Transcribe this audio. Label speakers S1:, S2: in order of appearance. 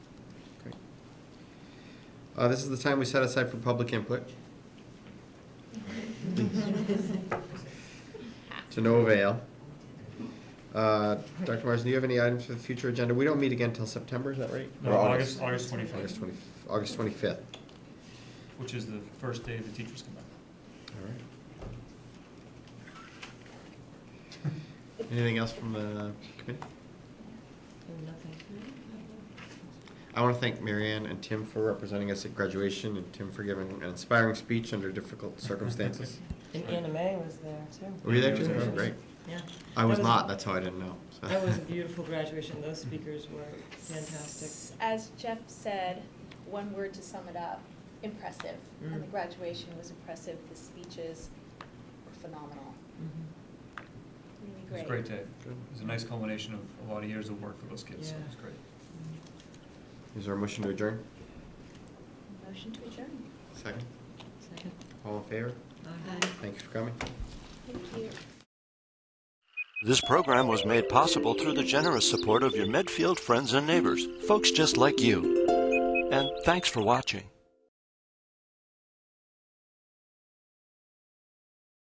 S1: Uh, This is the time we set aside for public input. To no avail. Uh, Dr. Marsden, do you have any items for the future agenda? We don't meet again until September, is that right?
S2: No,
S1: Or
S2: August, August
S1: August
S2: twenty-fifth,
S1: 20 August 25th.
S2: which is the first day the teachers come back.
S1: All right. Anything else from the committee? I want to thank Marianne and Tim for representing us at graduation and Tim for giving an inspiring speech under difficult circumstances.
S3: And Anna May was there too.
S1: Were you there,
S2: Yeah, I was
S1: Tim?
S2: there.
S1: Oh, Great.
S3: Yeah.
S1: I was
S3: That
S1: not, that's how I didn't know. so.
S3: That was a beautiful graduation. Those speakers were fantastic.
S4: As Jeff said, one word to sum it up, impressive. And the
S3: Mm.
S4: graduation was impressive, the speeches were phenomenal,
S3: Mm-hmm.
S4: really
S2: It was
S4: great.
S2: a great day.
S1: Good.
S2: It was a nice culmination of a lot of years of work for those kids, so it was
S3: Yeah.
S2: great.
S1: Is there a motion to adjourn?
S4: Motion to adjourn.
S1: Second.
S3: Second.
S1: All in favor?
S3: Aye.
S1: Thank you for coming.
S4: Thank you.
S5: This program was made possible through the generous support of your Medfield friends and neighbors, folks just like you. And thanks for watching.